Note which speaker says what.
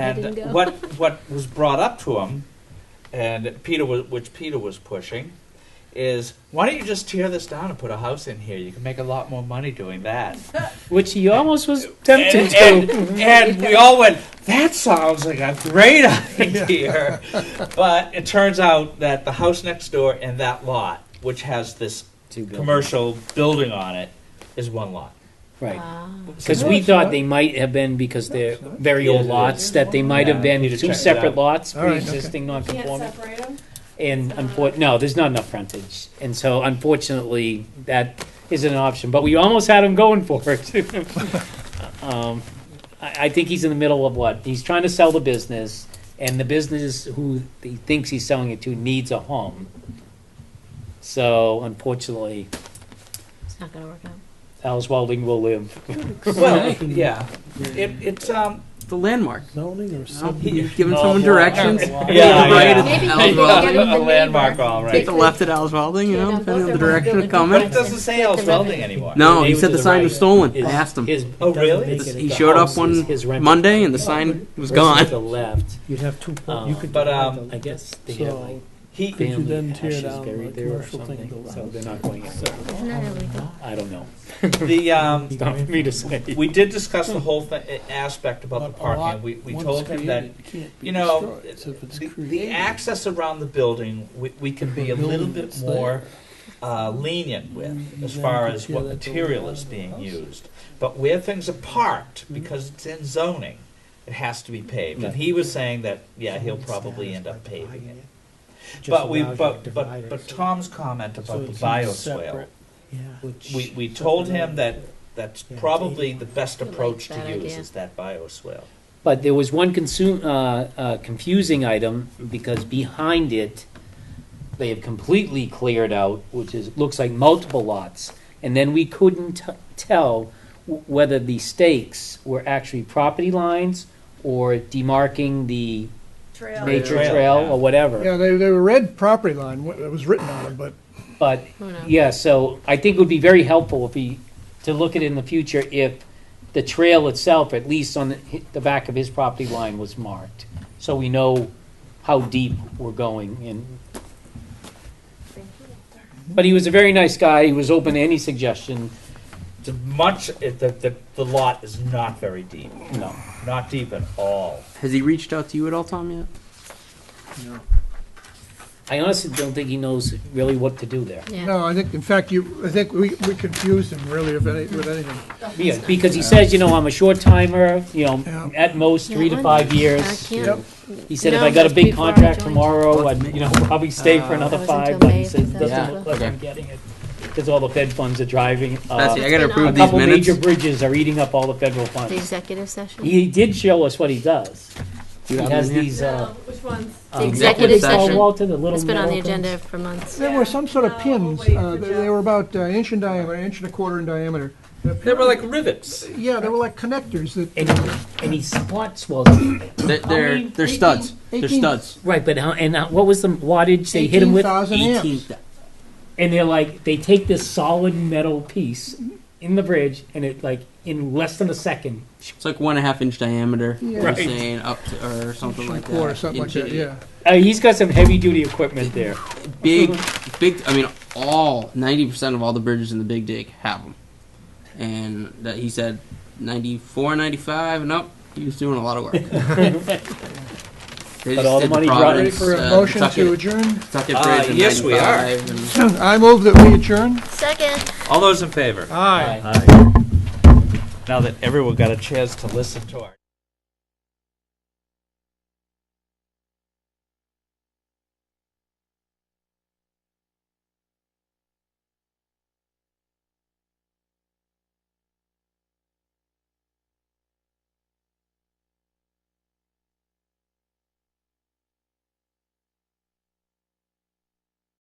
Speaker 1: And
Speaker 2: didn't go.
Speaker 1: what what was brought up to him, and Peter was, which Peter was pushing, is why don't you just tear this down and put a house in here? You can make a lot more money doing that.
Speaker 3: Which he almost was
Speaker 1: And,
Speaker 3: tempted
Speaker 1: and,
Speaker 3: to.
Speaker 1: and we all went, that sounds like a great idea. but it turns out that the house next door and that lot, which has this commercial building on it, is one lot.
Speaker 4: Uh,
Speaker 3: Right.
Speaker 2: Ah.
Speaker 3: Because
Speaker 5: No,
Speaker 3: we
Speaker 5: it's
Speaker 3: thought
Speaker 5: not.
Speaker 3: they might have been, because they're
Speaker 5: it's not.
Speaker 3: very
Speaker 1: Yeah,
Speaker 3: old
Speaker 1: it
Speaker 3: lots,
Speaker 5: is.
Speaker 3: that they might have
Speaker 1: Yeah, I need
Speaker 3: been
Speaker 1: to
Speaker 3: two
Speaker 1: check that out.
Speaker 3: separate lots,
Speaker 5: All right, okay.
Speaker 3: pre-existing
Speaker 6: Can't
Speaker 3: non-conforming.
Speaker 6: separate them?
Speaker 3: And unfor, no, there's not enough frontage. And so unfortunately, that isn't an option, but we almost had him going for it. Um, I, I think he's in the middle of what? He's trying to sell the business, and the business who he thinks he's selling it to needs a home. So unfortunately,
Speaker 2: It's not gonna work out.
Speaker 3: Alice Wilding will live.
Speaker 1: Well, yeah. It, it's, um,
Speaker 7: The landmark.
Speaker 5: Zoning or
Speaker 7: No,
Speaker 5: something.
Speaker 7: You've given someone directions.
Speaker 3: Yeah,
Speaker 7: Take the right
Speaker 1: yeah.
Speaker 7: at
Speaker 2: Maybe you
Speaker 7: Al's
Speaker 2: can
Speaker 7: Welding.
Speaker 2: get it
Speaker 1: a
Speaker 2: the
Speaker 1: landmark,
Speaker 2: neighbor.
Speaker 1: all
Speaker 7: Take
Speaker 1: right.
Speaker 7: the left at Al's Welding, you know,
Speaker 2: Yeah,
Speaker 7: depending on
Speaker 2: both
Speaker 7: the
Speaker 2: are
Speaker 7: direction
Speaker 2: building
Speaker 7: of coming.
Speaker 1: But it doesn't say I was welding anymore.
Speaker 7: No, he
Speaker 3: Neighbor
Speaker 7: said
Speaker 3: to
Speaker 7: the
Speaker 3: the
Speaker 7: sign
Speaker 3: right
Speaker 7: was stolen.
Speaker 3: is-
Speaker 7: I asked him.
Speaker 3: His-
Speaker 1: Oh,
Speaker 3: it doesn't
Speaker 1: really?
Speaker 3: make it-
Speaker 7: He
Speaker 3: the
Speaker 7: showed up
Speaker 3: house
Speaker 7: one
Speaker 3: is his rental
Speaker 7: Monday and the
Speaker 3: property.
Speaker 7: sign was
Speaker 3: Versus
Speaker 7: gone.
Speaker 3: The left,
Speaker 5: You'd have two, po-
Speaker 3: Um,
Speaker 5: you could.
Speaker 1: but,
Speaker 5: divide
Speaker 1: um,
Speaker 5: the-
Speaker 3: I guess they have
Speaker 5: So,
Speaker 3: like
Speaker 1: He,
Speaker 5: Could you then
Speaker 3: family
Speaker 5: tear
Speaker 3: ashes
Speaker 5: down
Speaker 3: buried
Speaker 5: the
Speaker 3: there or
Speaker 5: commercial thing
Speaker 3: something,
Speaker 5: to
Speaker 3: so
Speaker 5: allow-
Speaker 3: they're not going anywhere.
Speaker 2: Isn't that illegal?
Speaker 3: I don't know.
Speaker 1: the, um,
Speaker 3: It's not for me to say.
Speaker 1: We did discuss the whole thi- aspect about the
Speaker 5: But a lot,
Speaker 1: parking. We, we
Speaker 5: once
Speaker 1: told him that,
Speaker 5: created, can't be
Speaker 1: you know,
Speaker 5: destroyed. So if it's
Speaker 1: the, the
Speaker 5: created,
Speaker 1: access around the building, we, we can be a
Speaker 5: building
Speaker 1: little bit
Speaker 5: that's
Speaker 1: more
Speaker 5: there.
Speaker 1: uh, lenient with as
Speaker 5: Then
Speaker 1: far
Speaker 5: you
Speaker 1: as
Speaker 5: tear
Speaker 1: what
Speaker 5: that building
Speaker 1: material
Speaker 5: down
Speaker 1: is
Speaker 5: and
Speaker 1: being
Speaker 5: house Mm-hmm. it.
Speaker 1: used. But where things are parked, because it's in zoning, it has to be paved. And he was saying that, yeah, he'll probably end up paving it.
Speaker 5: Just
Speaker 1: But we,
Speaker 5: allows you to
Speaker 1: but,
Speaker 5: divide
Speaker 1: but,
Speaker 5: it.
Speaker 1: but Tom's comment
Speaker 5: So
Speaker 1: about the
Speaker 5: it's
Speaker 1: bioswale,
Speaker 5: separate, yeah.
Speaker 1: we, we told him that that's
Speaker 5: Yeah.
Speaker 1: probably the best
Speaker 2: I like
Speaker 1: approach to
Speaker 2: that
Speaker 1: use
Speaker 2: idea.
Speaker 1: is that bioswale.
Speaker 3: But there was one consume, uh, uh, confusing item, because behind it, they have completely cleared out, which is, looks like multiple lots. And then we couldn't t- tell w- whether the stakes were actually property lines or demarking the
Speaker 6: Trail.
Speaker 3: nature
Speaker 1: Trail,
Speaker 3: trail
Speaker 1: yeah.
Speaker 3: or whatever.
Speaker 4: Yeah, they, they were red property line, wh- it was written on it, but
Speaker 3: But
Speaker 2: Who knows?
Speaker 3: Yeah, so I think it would be very helpful if he, to look at in the future if the trail itself, at least on the, the back of his property line was marked. So we know how deep we're going and. But he was a very nice guy. He was open to any suggestion.
Speaker 1: The much it- the, the the lot is not very deep,
Speaker 3: No.
Speaker 1: not deep at all.
Speaker 7: Has he reached out to you at all, Tom, yet?
Speaker 3: I honestly don't think he knows really what to do there.
Speaker 2: Yeah.
Speaker 4: no, I think, in fact, you, I think we, we confused him really if any, with anything.
Speaker 3: Yeah, because he says, you know, I'm a short timer, you
Speaker 4: Yeah.
Speaker 3: know, at most three to
Speaker 2: Yeah,
Speaker 3: five years.
Speaker 2: I can't.
Speaker 4: Yep.
Speaker 3: He said, if
Speaker 2: No,
Speaker 3: I got a
Speaker 2: just
Speaker 3: big
Speaker 2: before I
Speaker 3: contract
Speaker 2: joined.
Speaker 3: tomorrow, I'd, you know, probably stay for
Speaker 7: Uh,
Speaker 3: another
Speaker 2: That was until
Speaker 3: five, but
Speaker 2: May,
Speaker 3: he says,
Speaker 2: that
Speaker 3: doesn't
Speaker 7: was
Speaker 3: look like
Speaker 7: last
Speaker 3: I'm getting it. Because all the Fed funds are driving,
Speaker 7: Betsy, I
Speaker 3: uh,
Speaker 7: gotta
Speaker 2: been
Speaker 3: a
Speaker 7: approve
Speaker 2: on-
Speaker 7: these
Speaker 3: couple
Speaker 7: minutes.
Speaker 3: major bridges are eating up all the federal
Speaker 2: The
Speaker 3: funds.
Speaker 2: executive session?
Speaker 3: He did show us what he does. He
Speaker 7: You have
Speaker 3: has
Speaker 7: them here?
Speaker 3: these,
Speaker 6: No,
Speaker 3: uh.
Speaker 6: which ones?
Speaker 3: um,
Speaker 2: executive
Speaker 3: what's it called,
Speaker 2: session.
Speaker 3: Walter, the little
Speaker 2: It's been on the
Speaker 3: metal things?
Speaker 2: agenda for months.
Speaker 4: There were some sort of
Speaker 6: Yeah.
Speaker 4: pins,
Speaker 6: Oh, wait
Speaker 4: uh,
Speaker 6: for
Speaker 4: they
Speaker 6: Jeff.
Speaker 4: they were about uh, inch in diameter, inch and a quarter in diameter.
Speaker 1: They were like rivets.
Speaker 4: Yeah, they were like connectors that,
Speaker 3: And, and he spots was,
Speaker 7: They're, they're, they're studs. They're
Speaker 4: Eighteen-
Speaker 7: studs.
Speaker 3: right, but how, and uh, what was the wattage they hit him
Speaker 4: eighteen
Speaker 3: with?
Speaker 4: thousand
Speaker 7: Eighteen.
Speaker 4: amps.
Speaker 7: thou-
Speaker 3: And they're like, they take this solid metal piece in the bridge and it like, in less than a second,
Speaker 7: It's like one and a half inch diameter.
Speaker 4: Yeah.
Speaker 7: you're
Speaker 3: Right.
Speaker 7: saying, up to, or something like that.
Speaker 4: Or something like
Speaker 7: Inch-
Speaker 4: that, yeah.
Speaker 3: Uh, he's got some heavy duty equipment there.
Speaker 7: Big,
Speaker 3: Mm-hmm.
Speaker 7: big. I mean, all ninety percent of all the bridges in the Big Dig have them, and that he said 94, 95 and up. He was doing a lot of work. They
Speaker 3: But
Speaker 7: just
Speaker 3: all the
Speaker 7: did
Speaker 3: money brought in.
Speaker 4: Ready
Speaker 7: Providence,
Speaker 4: for a
Speaker 7: uh,
Speaker 4: motion
Speaker 7: Tucket-
Speaker 4: to adjourn?
Speaker 7: Tucket
Speaker 1: Uh,
Speaker 7: Bridge in
Speaker 1: yes, we are.
Speaker 7: 95 and-
Speaker 4: I move that we adjourn.
Speaker 2: Second.
Speaker 1: All those in favor?
Speaker 4: Aye.
Speaker 1: Now that everyone got a chance to listen to our.